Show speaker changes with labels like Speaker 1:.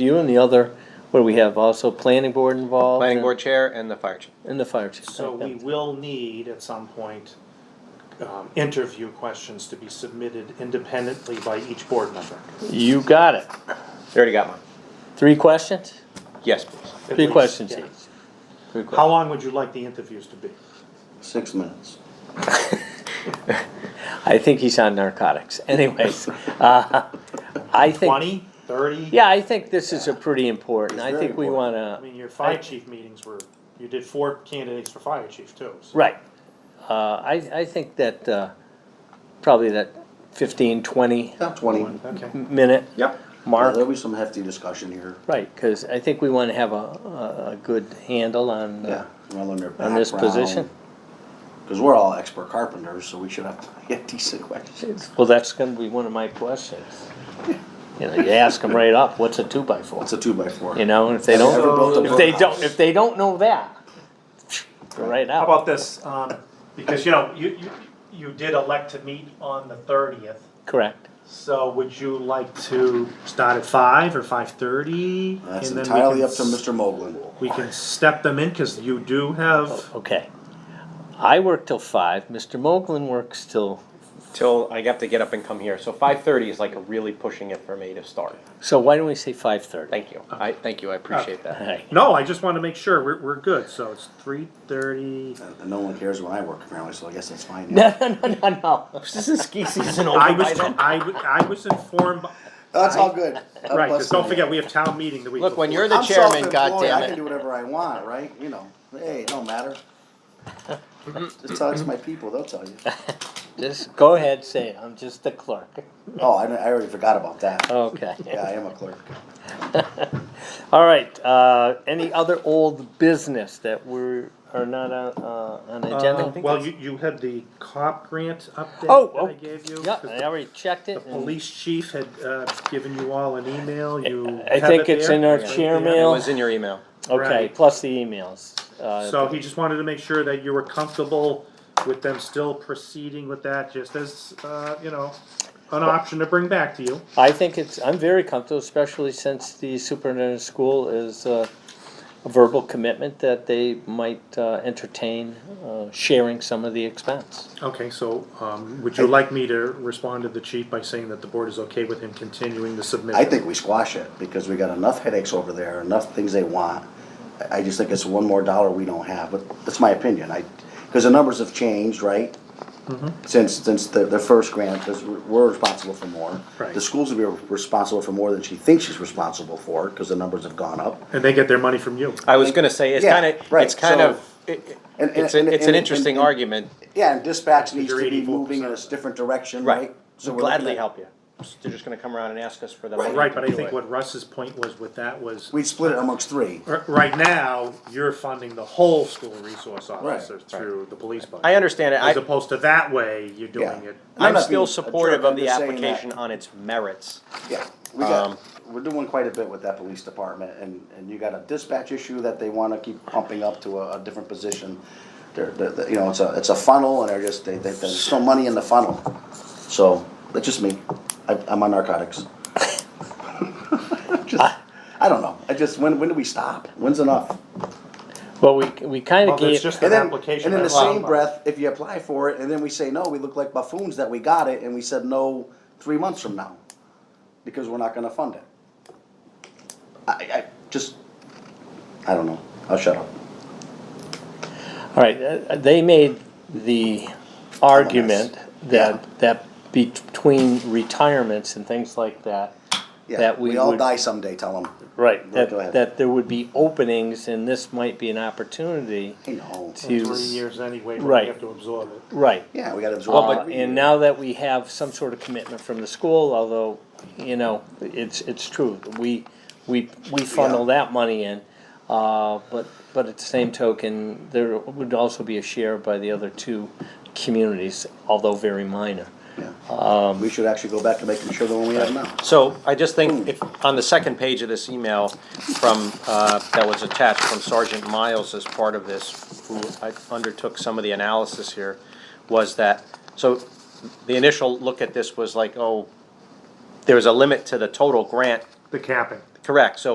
Speaker 1: You and the other, what do we have, also planning board involved?
Speaker 2: Planning
Speaker 1: and-
Speaker 2: board chair and the fire chief.
Speaker 1: And the fire chief.
Speaker 3: So we will need at some point, um, interview questions to be submitted independently by each board member.
Speaker 1: You got it.
Speaker 2: You already got one.
Speaker 1: Three questions?
Speaker 2: Yes, please.
Speaker 3: At
Speaker 1: Three
Speaker 3: least,
Speaker 1: questions
Speaker 3: yeah.
Speaker 1: each.
Speaker 2: Good
Speaker 3: How
Speaker 2: question.
Speaker 3: long would you like the interviews to be?
Speaker 4: Six minutes.
Speaker 1: I think he's on narcotics. Anyways, uh, I think,
Speaker 3: Twenty, thirty?
Speaker 1: yeah, I think this is a pretty important, I
Speaker 4: very
Speaker 1: think we
Speaker 4: important.
Speaker 3: I
Speaker 1: wanna,
Speaker 3: mean, your fire chief meetings were, you did four candidates for fire chief too. so-
Speaker 1: right. Uh, I, I think that, uh, probably that fifteen, twenty
Speaker 4: Yeah, twenty.
Speaker 3: Okay.
Speaker 1: minute
Speaker 2: Yep.
Speaker 4: Yeah,
Speaker 1: mark.
Speaker 4: There'll be some hefty discussion here.
Speaker 1: Right, cause I think we wanna have a, a, a good handle on,
Speaker 4: Yeah,
Speaker 1: uh,
Speaker 4: well, on their
Speaker 1: on this position.
Speaker 4: Because we're all expert carpenters, so we should have get decent questions.
Speaker 1: Well, that's gonna be one of my questions. You know, you ask them right up, what's a two by four?
Speaker 4: What's a two by four?
Speaker 1: You know, and if they
Speaker 4: Have you ever
Speaker 1: don't,
Speaker 4: built a
Speaker 1: if they
Speaker 4: birdhouse?
Speaker 1: don't, if they don't know that, go right
Speaker 5: How
Speaker 1: out.
Speaker 5: about this, um, because you know, you, you, you did elect to meet on the thirtieth,
Speaker 1: Correct.
Speaker 3: So would you like to start at five or five thirty?
Speaker 4: That's entirely up to Mr. Moglen.
Speaker 3: We can step them in, cause you do have,
Speaker 4: Oh.
Speaker 1: Okay. I work till five, Mr. Moglen works till,
Speaker 2: Till I have to get up and come here. So five thirty is like really pushing it for me to start.
Speaker 1: so why don't we say five thirty?
Speaker 2: Thank you. I, thank you. I appreciate that.
Speaker 3: no, I just wanna make sure we're, we're good, so it's three thirty.
Speaker 4: And and no one cares when I work apparently, so I guess that's fine.
Speaker 1: No, no, no, no, no. This is ski season over
Speaker 3: I
Speaker 1: by
Speaker 3: was,
Speaker 1: then.
Speaker 3: I, wa- I was informed,
Speaker 4: That's all good.
Speaker 3: right, because don't forget, we have town meeting the week
Speaker 2: Look, when
Speaker 3: before.
Speaker 2: you're the
Speaker 4: I'm
Speaker 2: chairman,
Speaker 4: self-employed, I can
Speaker 2: goddammit.
Speaker 4: do whatever I want, right? You know, hey, it don't matter. Just tell it to my people, they'll tell you.
Speaker 1: Just go ahead, say it, I'm just the clerk.
Speaker 4: Oh, I, I already forgot about that.
Speaker 1: Okay.
Speaker 4: Yeah, I am a clerk.
Speaker 1: All right, uh, any other old business that we're, are not on, uh, on the
Speaker 3: Uh,
Speaker 1: agenda?
Speaker 3: Well, you, you had the cop grant
Speaker 1: Oh,
Speaker 3: update that
Speaker 1: oh,
Speaker 3: I gave you.
Speaker 1: yeah,
Speaker 3: 'cause
Speaker 1: I
Speaker 3: the-
Speaker 1: already checked
Speaker 3: The
Speaker 1: it. and-
Speaker 3: police chief had, uh, given you all an email, you.
Speaker 1: I
Speaker 3: have
Speaker 1: think
Speaker 3: it
Speaker 1: it's
Speaker 3: there?
Speaker 1: in our
Speaker 3: It's right
Speaker 1: chair
Speaker 3: there.
Speaker 2: It
Speaker 1: mail.
Speaker 2: was in your email.
Speaker 1: Okay,
Speaker 3: Right.
Speaker 1: plus the emails. Uh,
Speaker 3: So he just wanted to make sure that you were comfortable with them still proceeding with that, just as, uh, you know, an option to bring back to you.
Speaker 1: I think it's, I'm very comfortable, especially since the superintendent of school is uh, a verbal commitment that they might uh, entertain uh, sharing some of the expense.
Speaker 3: Okay, so, um, would you like me to respond to the chief by saying that the board is okay with him continuing the submission?
Speaker 4: I think we squash it, because we got enough headaches over there, enough things they want. I, I just think it's one more dollar we don't have, but that's my opinion, I, because the numbers have changed, right? Since, since the, the first grant, because we're responsible for more.
Speaker 3: Right.
Speaker 4: The schools will be responsible for more than she thinks she's responsible for, because the numbers have gone up.
Speaker 3: And they get their money from you.
Speaker 2: I was gonna say, it's
Speaker 4: Yeah,
Speaker 2: kind of,
Speaker 4: right,
Speaker 2: it's kind
Speaker 4: so-
Speaker 2: of, it-
Speaker 4: And- and-
Speaker 2: it's, a-
Speaker 4: and-
Speaker 2: it's an
Speaker 4: and-
Speaker 2: interesting
Speaker 4: and- and-
Speaker 2: argument.
Speaker 4: Yeah, and dispatch needs
Speaker 3: Because
Speaker 4: to
Speaker 3: you're 84%.
Speaker 4: be moving in a different direction,
Speaker 2: Right.
Speaker 4: right? So we're looking
Speaker 2: Gladly
Speaker 4: at-
Speaker 2: help you. They're just gonna come around and ask us for the money.
Speaker 3: Right,
Speaker 2: to
Speaker 3: but I
Speaker 2: do
Speaker 3: think
Speaker 2: it.
Speaker 3: what Russ's point was with that was,
Speaker 4: We'd split it amongst three.
Speaker 3: r- right now, you're funding the whole school resource officer through the police budget.
Speaker 2: I understand it.
Speaker 3: As
Speaker 2: I,
Speaker 3: opposed to that way, you're doing
Speaker 4: Yeah.
Speaker 3: it.
Speaker 2: I'm
Speaker 4: not
Speaker 2: still
Speaker 4: being a jerk,
Speaker 2: supportive of
Speaker 4: I'm
Speaker 2: the
Speaker 4: just saying that-
Speaker 2: application on its merits.
Speaker 4: Yeah, we
Speaker 2: Um,
Speaker 4: got, we're doing quite a bit with that police department, and, and you got a dispatch issue that they wanna keep pumping up to a, a different position. They're, they're, they're- you know, it's a, it's a funnel, and they're just, they, they, there's no money in the funnel. So, that's just me, I, I'm on narcotics. Just, I don't know, I just, when, when do we stop? When's enough?
Speaker 1: Well, we, we kind
Speaker 3: Well,
Speaker 1: of
Speaker 3: there's
Speaker 1: gave,
Speaker 3: just
Speaker 4: And
Speaker 3: an
Speaker 4: then,
Speaker 3: application.
Speaker 4: and in the
Speaker 3: that's allowed.
Speaker 4: same breath, if you apply for it, and then we say, no, we look like buffoons that we got it, and we said no three months from now, because we're not gonna fund it. I, I, just, I don't know, I'll shut up.
Speaker 1: all right, uh, they made the argument that, that between retirements and things like that,
Speaker 4: Yeah,
Speaker 1: That we
Speaker 4: we all
Speaker 1: would-
Speaker 4: die someday, tell them,
Speaker 1: right,
Speaker 4: Go-
Speaker 1: that,
Speaker 4: go ahead.
Speaker 1: that there would be openings and this might be an opportunity
Speaker 4: you know,
Speaker 1: to.
Speaker 3: Three years anyway, but
Speaker 1: Right.
Speaker 3: we have to absorb it.
Speaker 1: Right.
Speaker 4: yeah, we gotta
Speaker 1: Uh,
Speaker 4: absorb. every year.
Speaker 1: And now that we have some sort of commitment from the school, although, you know, it's, it's true, we, we, we funnel that money in. Uh, but, but at the same token, there would also be a share by the other two communities, although very minor.
Speaker 4: Yeah. We should actually go back to making sure the one we have now.
Speaker 2: So I just think if, on the second page of this email from, uh, that was attached from Sergeant Miles as part of this, who I undertook some of the analysis here, was that, so the initial look at this was like, oh, there was a limit to the total grant
Speaker 6: the capping.
Speaker 3: Correct, so